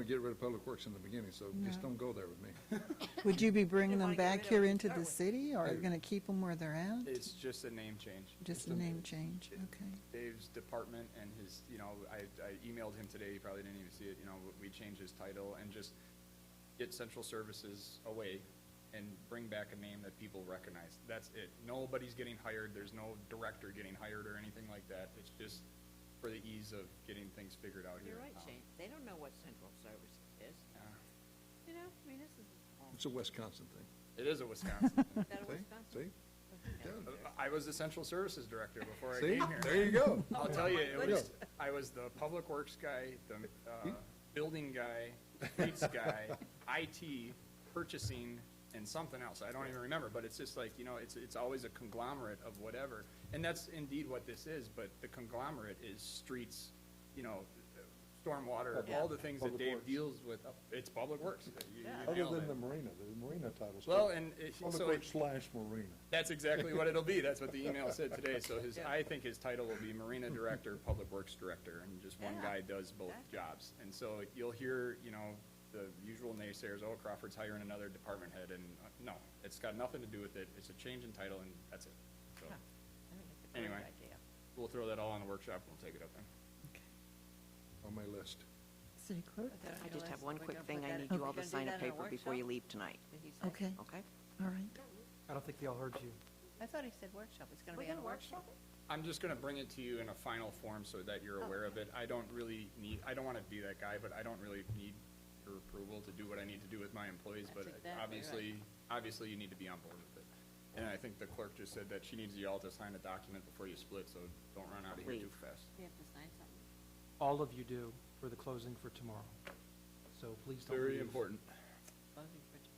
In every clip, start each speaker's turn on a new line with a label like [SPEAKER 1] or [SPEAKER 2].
[SPEAKER 1] to get rid of Public Works in the beginning, so just
[SPEAKER 2] No.
[SPEAKER 1] don't go there with me.
[SPEAKER 2] Would you be bringing
[SPEAKER 3] Didn't
[SPEAKER 2] them
[SPEAKER 3] wanna get
[SPEAKER 2] back
[SPEAKER 3] rid of
[SPEAKER 2] here
[SPEAKER 3] them to
[SPEAKER 2] into
[SPEAKER 3] start
[SPEAKER 2] the
[SPEAKER 3] with.
[SPEAKER 2] city, or are you
[SPEAKER 1] No.
[SPEAKER 2] going to keep them where they're at?
[SPEAKER 4] It's just a name change.
[SPEAKER 2] Just a name change, okay.
[SPEAKER 4] Dave's department and his, you know, I, I emailed him today, he probably didn't even see it, you know, we changed his title and just get central services away and bring back a name that people recognize. That's it. Nobody's getting hired, there's no director getting hired or anything like that. It's just for the ease of getting things figured out here.
[SPEAKER 3] You're
[SPEAKER 4] Um,
[SPEAKER 3] right,
[SPEAKER 4] in town.
[SPEAKER 3] Shane, they don't know what central services is,
[SPEAKER 4] Yeah.
[SPEAKER 3] you know, I mean, this is. all-
[SPEAKER 1] It's a Wisconsin thing.
[SPEAKER 4] It is a Wisconsin thing.
[SPEAKER 3] Is that a
[SPEAKER 1] See?
[SPEAKER 3] Wisconsin?
[SPEAKER 1] See?
[SPEAKER 3] Okay.
[SPEAKER 1] Yeah.
[SPEAKER 4] I was the central services director before I
[SPEAKER 1] See?
[SPEAKER 4] came here.
[SPEAKER 1] There you go.
[SPEAKER 4] I'll tell you,
[SPEAKER 3] my
[SPEAKER 4] it was, I was the public works guy, the, uh, building guy, fleets guy, IT, purchasing, and something else. I don't even remember, but it's just like, you know, it's, it's always a conglomerate of whatever. And that's indeed what this is, but the conglomerate is streets, you know, stormwater, all the things that
[SPEAKER 5] Public
[SPEAKER 4] Dave
[SPEAKER 5] works.
[SPEAKER 4] deals with. It's public works. You- you
[SPEAKER 3] Yeah.
[SPEAKER 5] Other
[SPEAKER 4] nailed
[SPEAKER 5] than the
[SPEAKER 4] it.
[SPEAKER 5] marina, the marina title's.
[SPEAKER 4] Well,
[SPEAKER 5] good.
[SPEAKER 4] and it-
[SPEAKER 5] Public
[SPEAKER 4] so-
[SPEAKER 5] works slash marina.
[SPEAKER 4] That's exactly what it'll be. That's what the email said today. So his, I think his title will be Marina Director, Public Works Director, and just one
[SPEAKER 3] Yeah.
[SPEAKER 4] guy does both
[SPEAKER 3] Exactly.
[SPEAKER 4] jobs. And so you'll hear, you know, the usual naysayers, oh, Crawford's hiring another department head, and uh, no, it's got nothing to do with it. It's a change in title, and that's it. So
[SPEAKER 3] Huh. I think it's a great
[SPEAKER 4] Anyway.
[SPEAKER 3] idea.
[SPEAKER 4] we'll throw that all on the workshop, and we'll take it up then.
[SPEAKER 1] On my list.
[SPEAKER 2] City clerk?
[SPEAKER 3] But then
[SPEAKER 6] I just have
[SPEAKER 3] realized
[SPEAKER 6] one
[SPEAKER 3] we're
[SPEAKER 6] quick
[SPEAKER 3] gonna
[SPEAKER 6] thing.
[SPEAKER 3] put
[SPEAKER 6] I
[SPEAKER 3] that-
[SPEAKER 6] need you
[SPEAKER 3] we're
[SPEAKER 6] all to
[SPEAKER 3] gonna do
[SPEAKER 6] sign a
[SPEAKER 3] that in
[SPEAKER 6] paper before you
[SPEAKER 3] workshop?
[SPEAKER 6] leave tonight,
[SPEAKER 3] Did he say?
[SPEAKER 2] Okay,
[SPEAKER 6] okay?
[SPEAKER 2] all right.
[SPEAKER 7] I don't think they all heard you.
[SPEAKER 3] I thought he said workshop, it's gonna
[SPEAKER 6] We're
[SPEAKER 3] be on a
[SPEAKER 6] gonna
[SPEAKER 3] workshop.
[SPEAKER 6] workshop
[SPEAKER 4] I'm just gonna bring it to you in a final form so that
[SPEAKER 3] Oh.
[SPEAKER 4] you're aware of it. I don't really need, I don't wanna be that guy, but I don't really need your approval to do what I need to do with my employees,
[SPEAKER 3] That's
[SPEAKER 4] but
[SPEAKER 3] exactly right.
[SPEAKER 4] obviously, obviously you need to be on board with it. And I think the clerk just said that she needs you all to sign a document before you split, so don't run out of here too
[SPEAKER 6] Leave.
[SPEAKER 4] fast.
[SPEAKER 3] We have to sign something.
[SPEAKER 7] All of you do for the closing for tomorrow. So please don't
[SPEAKER 4] Very
[SPEAKER 7] leave.
[SPEAKER 4] important.
[SPEAKER 3] Closing for t-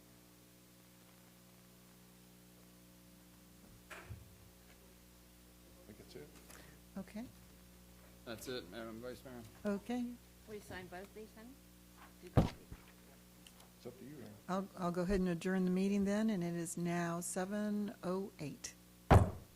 [SPEAKER 5] I think that's it.
[SPEAKER 2] Okay,
[SPEAKER 4] That's it, Madam Vice Mayor.
[SPEAKER 2] okay.
[SPEAKER 3] Will you sign both these, honey? Do both.
[SPEAKER 5] It's up to you, Aaron.
[SPEAKER 2] oh I'll, I'll go ahead and adjourn the meeting then, and it is now 7:08.